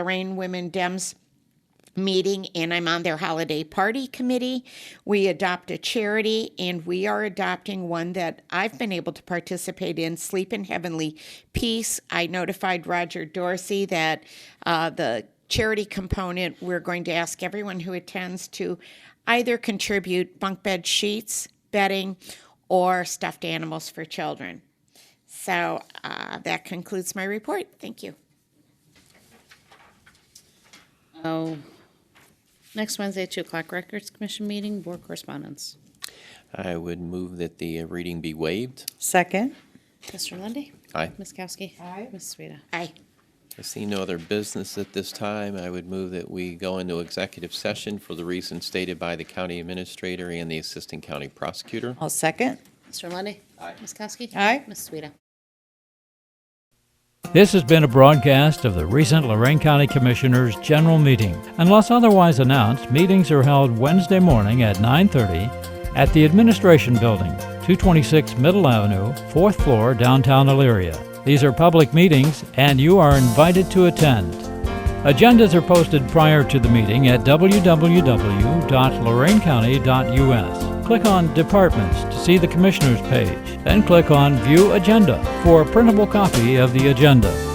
Lorraine Women Dems meeting and I'm on their holiday party committee. We adopt a charity and we are adopting one that I've been able to participate in Sleep in Heavenly Peace. I notified Roger Dorsey that uh, the charity component, we're going to ask everyone who attends to either contribute bunk bed sheets, bedding, or stuffed animals for children. So uh, that concludes my report. Thank you. Oh, next Wednesday, two o'clock, Records Commission meeting, board correspondence. I would move that the reading be waived. Second. Mr. Lundy, Aye. Ms. Kowski. Aye. Ms. Sueda. Aye. I see no other business at this time. I would move that we go into executive session for the reasons stated by the county administrator and the assistant county prosecutor. I'll second. Mr. Lundy, Aye. Ms. Kowski. Aye. Ms. Sueda. This has been a broadcast of the recent Lorraine County Commissioners' General Meeting. Unless otherwise announced, meetings are held Wednesday morning at 9:30 at the Administration Building, 226 Middle Avenue, 4th floor, downtown Elyria. These are public meetings and you are invited to attend. Agendas are posted prior to the meeting at www.lorainecounty.us. Click on Departments to see the Commissioners page, then click on View Agenda for a printable copy of the agenda.